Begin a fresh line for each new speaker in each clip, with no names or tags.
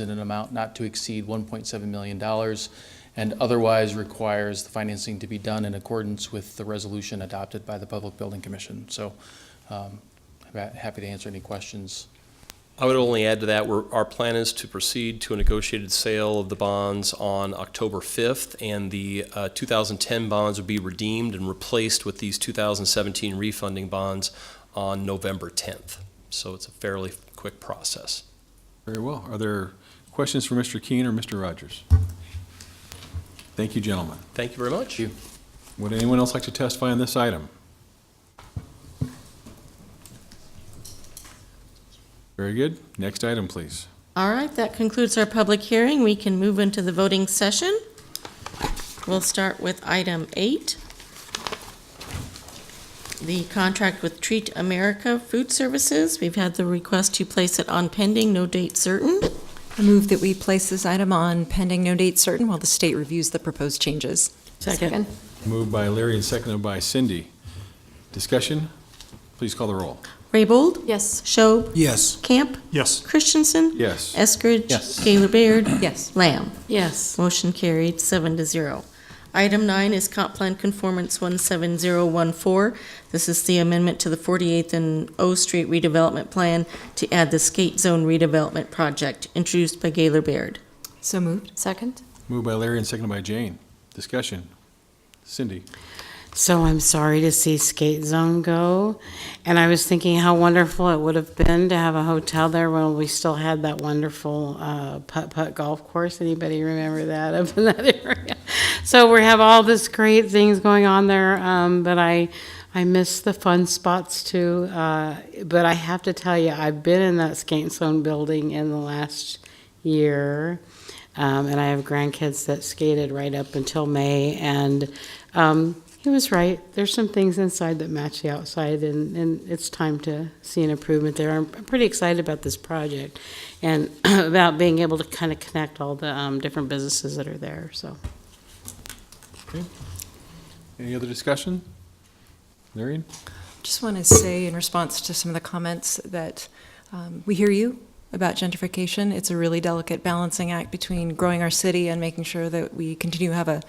in an amount not to exceed $1.7 million, and otherwise requires the financing to be done in accordance with the resolution adopted by the Public Building Commission. So um, I'm happy to answer any questions.
I would only add to that, we're, our plan is to proceed to a negotiated sale of the bonds on October 5th, and the uh, 2010 bonds would be redeemed and replaced with these 2017 refunding bonds on November 10th. So it's a fairly quick process.
Very well. Are there questions for Mr. Keene or Mr. Rogers? Thank you, gentlemen.
Thank you very much.
Would anyone else like to testify on this item? Very good. Next item, please.
All right, that concludes our public hearing. We can move into the voting session. We'll start with item eight. The contract with Treat America Food Services. We've had the request to place it on pending, no date certain.
I move that we place this item on pending no date certain while the state reviews the proposed changes.
Second.
Moved by Larry and seconded by Cindy. Discussion? Please call the roll.
Raybold?
Yes.
Schob?
Yes.
Camp?
Yes.
Christensen?
Yes.
Eskridge?
Yes.
Gaylor Baird?
Yes.
Lamb?
Yes.
Motion carried, seven to zero. Item nine is comp plan conformance 17014. This is the amendment to the 48th and O Street redevelopment plan to add the skate zone redevelopment project, introduced by Gaylor Baird.
So moved. Second?
Moved by Larry and seconded by Jane. Discussion? Cindy?
So I'm sorry to see Skate Zone go. And I was thinking how wonderful it would have been to have a hotel there when we still had that wonderful uh, putt putt golf course. Anybody remember that up in that area? So we have all this great things going on there, um, but I I miss the fun spots too. Uh, but I have to tell you, I've been in that Skate Zone building in the last year. Um, and I have grandkids that skated right up until May, and um, he was right. There's some things inside that match the outside, and, and it's time to see an improvement there. I'm, I'm pretty excited about this project and about being able to kind of connect all the um, different businesses that are there. So,
Any other discussion? Larry?
Just want to say in response to some of the comments that um, we hear you about gentrification. It's a really delicate balancing act between growing our city and making sure that we continue to have a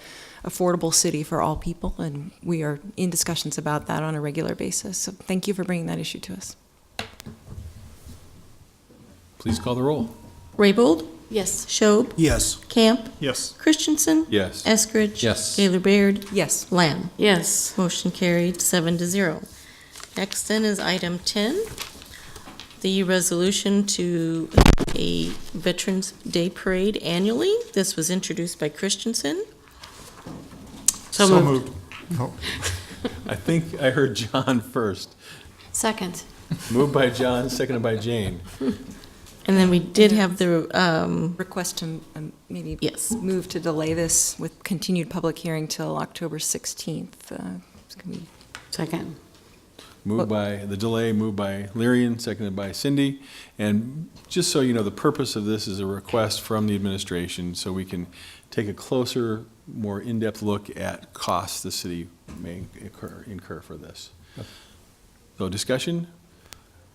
affordable city for all people, and we are in discussions about that on a regular basis. So thank you for bringing that issue to us.
Please call the roll.
Raybold?
Yes.
Schob?
Yes.
Camp?
Yes.
Christensen?
Yes.
Eskridge?
Yes.
Gaylor Baird?
Yes.
Lamb?
yes.
Motion carried, seven to zero. Next then is item 10, the resolution to a Veterans Day Parade annually. This was introduced by Christensen.
So, moved.
I think I heard John first.
Second.
Moved by John, seconded by Jane.
And then we did have the, um,
Request to um, maybe
yes,
move to delay this with continued public hearing till October 16th. Uh, Can we
Second.
Moved by, the delay moved by Lyrian, seconded by Cindy. And just so you know, the purpose of this is a request from the administration so we can take a closer, more in-depth look at costs the city may incur, incur for this. So discussion,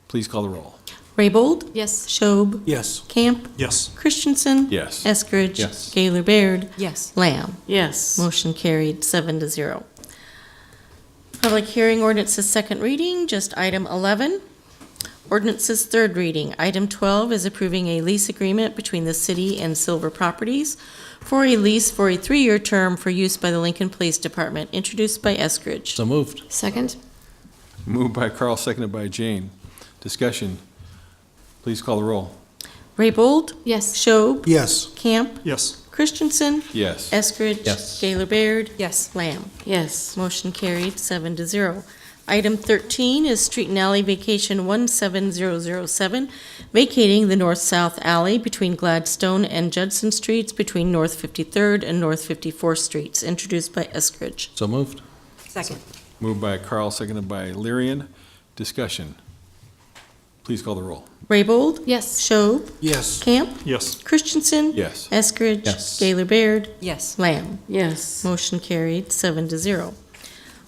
please call the roll.
Raybold,
Yes.
Schob,
Yes.
Camp,
Yes.
Christensen.
Yes.
Eskridge.
Yes.
Gaylor Baird,
Yes.
Lamb.
Yes.
Motion carried, seven to zero. Public hearing ordinance's second reading, just item 11. Ordinance's third reading, item 12 is approving a lease agreement between the city and Silver Properties for a lease for a three-year term for use by the Lincoln Police Department, introduced by Eskridge.
So moved.
Second.
Moved by Carl, seconded by Jane. Discussion, please call the roll.
Raybold,
Yes.
Schob,
Yes.
Camp,
Yes.
Christensen,
Yes.
Eskridge.
Yes.
Gaylor Baird,
Yes.
Lamb.
Yes.
Motion carried, seven to zero. Item 13 is Street and Alley Vacation 17007, vacating the north-south alley between Gladstone and Judson Streets between North 53rd and North 54th Streets, introduced by Eskridge.
So moved.
Second.
Moved by Carl, seconded by Lyrian. Discussion, please call the roll.
Raybold?
Yes.
Schob?
Yes.
Camp?
Yes.
Christensen?
Yes.
Eskridge?
Yes.
Gaylor Baird?
Yes.
Lamb?
Yes.
Motion carried, seven to zero.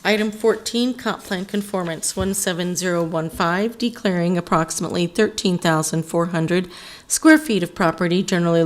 Item 14, comp plan conformance 17015, declaring approximately 13,400 square feet of property generally